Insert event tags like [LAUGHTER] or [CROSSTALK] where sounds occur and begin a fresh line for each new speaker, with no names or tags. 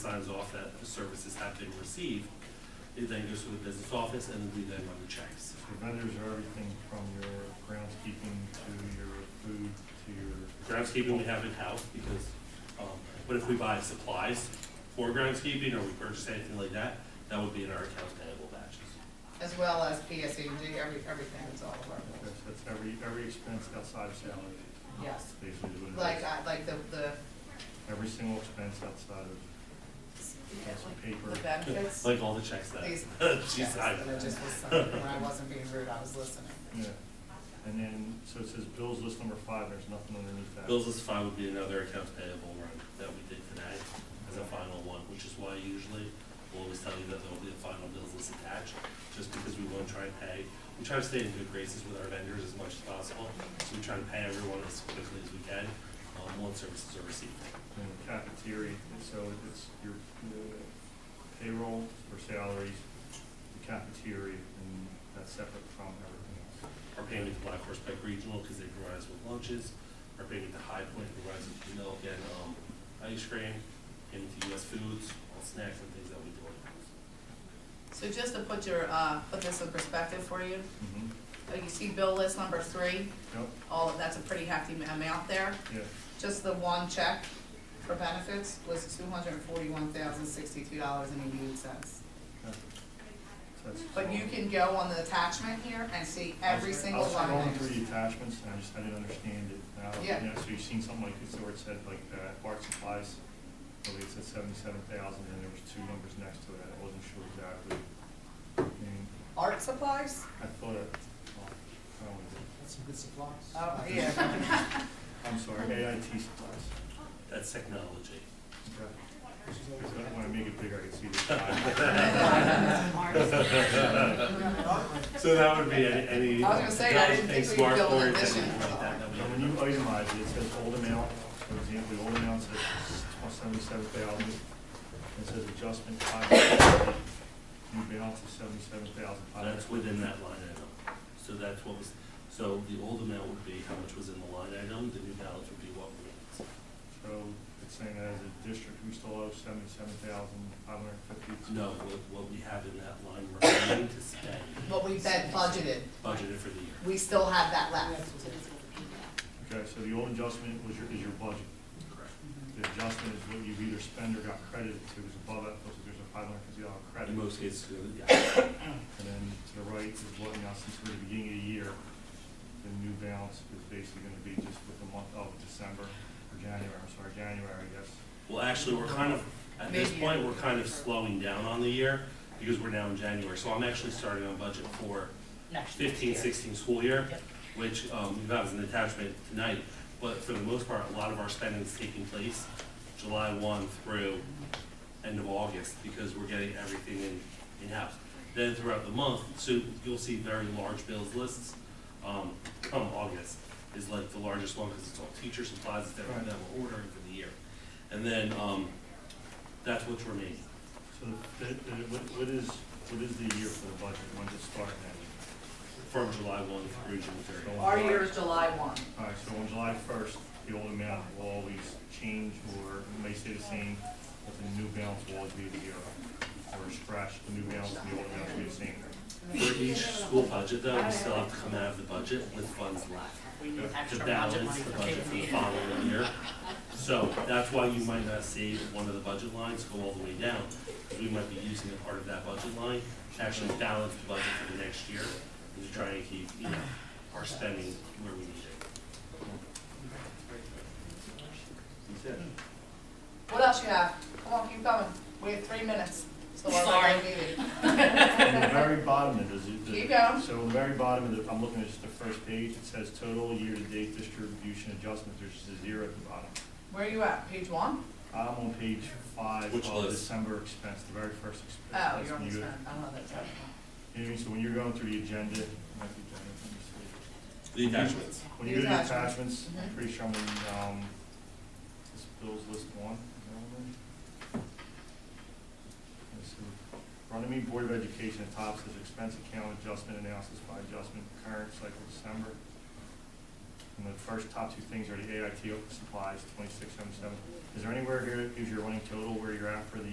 signs off that the services have been received. It then goes to the business office and we then run the checks.
The vendors are everything from your groundskeeping to your food to your,
Groundskeeping we have in-house because, um, but if we buy supplies for groundskeeping or we purchase anything like that, that would be in our accounts payable batches.
as well as PSEG, every, everything is all of our bills.
that's- that's every, every expense outside of salary.
Yes.
Basically is what it
Like, uh,
is.
I, like the, the,
Every single expense outside of, that's the paper.
the benefits.
Like all the checks that
These-
[LAUGHS] she
Yes,
signed.
And I just was, signing. when I wasn't being rude, I was listening.
Yeah. And then, so it says bills list number five, there's nothing underneath that.
Bills list five would be another accounts payable run that we did today as a final one, which is why usually we'll always tell you that there'll be a final bills list attached, just because we want to try and pay. We try to stay in good graces with our vendors as much as possible, so we try to pay everyone as quickly as we can, um, once services are received.
And the cafeteria, so it's your uh, payroll or salaries, the cafeteria, and that's separate from everything else.
Our payment to Black Horse Pike Regional, because they provide us with lunches, our payment to High Point provides us with milk and, um, ice cream, payment to US Foods, all snacks and things that we do.
So just to put your, uh, put this in perspective for you,
Mm-hmm.
uh, you see bill list number three,
Yep,
all of, that's a pretty hefty ma- amount there.
yeah.
Just the one check for benefits was two hundred and forty-one thousand, sixty-two dollars and eighty-eight cents.
yeah. So that's-
But you can go on the attachment here and see
I was-
every single one
I was scrolling
of
through
those.
the attachments, and I just, I didn't understand it. Now,
Yeah.
So you've seen something like this, where it said like, uh, art supplies, I believe it said seventy-seven thousand, and there was two numbers next to it, I wasn't sure exactly. And
Art supplies?
I thought, it- well, I don't know.
That's some good supplies.
Oh, yeah.
I'm sorry,
Um,
AIT supplies.
That's technology.
Because I don't want to make it bigger, I can see the.
[LAUGHS]
[LAUGHS]
So that would be any, any.
I was gonna say, I didn't
anything
think we would build an
smartboards,
addition.
anything like that, that we
So when you itemize it, it says old amount, for example, the old amount says seventy-seven thousand. It says adjustment five hundred, new balance is seventy-seven thousand five hundred.
That's within that line item. So that's what was, so the old amount would be how much was in the line item, the new balance would be what remains.
So it's saying that as a district, we still owe seventy-seven thousand five hundred fifty.
No, what, what we have in that line remaining to spend,
What we bet budgeted,
budgeted for the year.
we still have that left.
Okay, so the old adjustment was your, is your budget.
Correct.
The adjustment is what you've either spent or got credited to, is above that, plus there's a five hundred fifty dollar credit.
In most cases, yeah.
And then to the right is what now, since we're at the beginning of the year, the new balance is basically gonna be just with the month of December, or January, I'm sorry, January, I guess.
Well, actually, we're kind of, at this
Mid-year.
point, we're kind of slowing down on the year because we're now in January. So I'm actually starting on budget for fifteen, sixteen school year,
Yep.
which, um, we've got as an attachment tonight. But for the most part, a lot of our spending is taking place July one through end of August because we're getting everything in, in-house. Then throughout the month, so you'll see very large bills lists, um, come August is like the largest one because it's all teacher supplies, it's everything that we're ordering for the year. And then, um, that's what's remaining.
So the, the, the- what, what is, what is the year for the budget, when does it start now?
from July one through June thirty.
Our year is July one.
All right, so on July first, the old amount will always change, or it may stay the same, but the new balance will always be the year. Or scratch, the new balance, and the old amount will be the same.
For each school budget though, we still have to come out of the budget with funds left
We need
to
extra budget
balance
money for
the
E.
budget for the
kids.
following year. So that's why you might not see one of the budget lines go all the way down, because we might be using a part of that budget line to actually balance the budget for the next year, and to try and keep, you know, our spending where we need it. That's it.
What else you have? Come on, keep coming. We have three minutes. So we're
Sorry.
already needed.
On the very bottom, it is. it-
Keep going.
So on the very bottom, of the- I'm looking at just the first page, it says total year-to-date distribution adjustment, there's just a zero at the bottom.
Where are you at? Page one?
I'm on page five
Which
of
list?
December expense, the very first expense.
Oh,
That's
you're on
when
this
you-
one. I don't know that type
You know what I mean, so when you're going through the agenda, not the agenda, let me see.
The attachments.
When you go to the
The
attachments, I'm
Mhm.
pretty sure I'm in, um, this bills list one. Runnymede Board of Education at top says expense account adjustment analysis by adjustment current cycle December. And the first top two things are the AIT supplies, twenty-six seven seven. Is there anywhere here that gives your running total where you're at for the